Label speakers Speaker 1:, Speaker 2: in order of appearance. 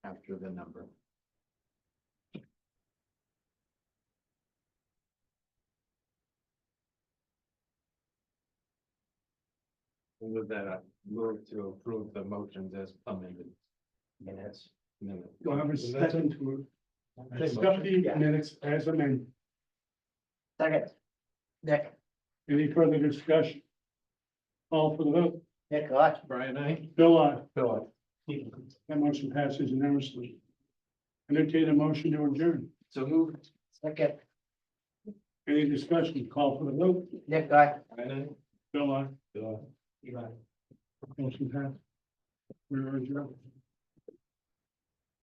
Speaker 1: after the number. And With that, I move to approve the motions as amended. Minutes. Minutes.
Speaker 2: Do I have a second to accept
Speaker 1: Motion.
Speaker 2: the minutes as amended?
Speaker 3: Second. Nick,
Speaker 2: Any further discussion? All for the vote,
Speaker 3: Nick, aye.
Speaker 1: Brian, I.
Speaker 2: Bill, I,
Speaker 1: Bill.
Speaker 2: that motion passes unanimously. Entertain a motion to adjourn.
Speaker 1: So move.
Speaker 3: Second.
Speaker 2: Any discussion, call for the vote,
Speaker 3: Nick, aye.
Speaker 1: Brian,
Speaker 2: Bill, I,
Speaker 1: I. Bill.
Speaker 2: motion passed. We are adjourned.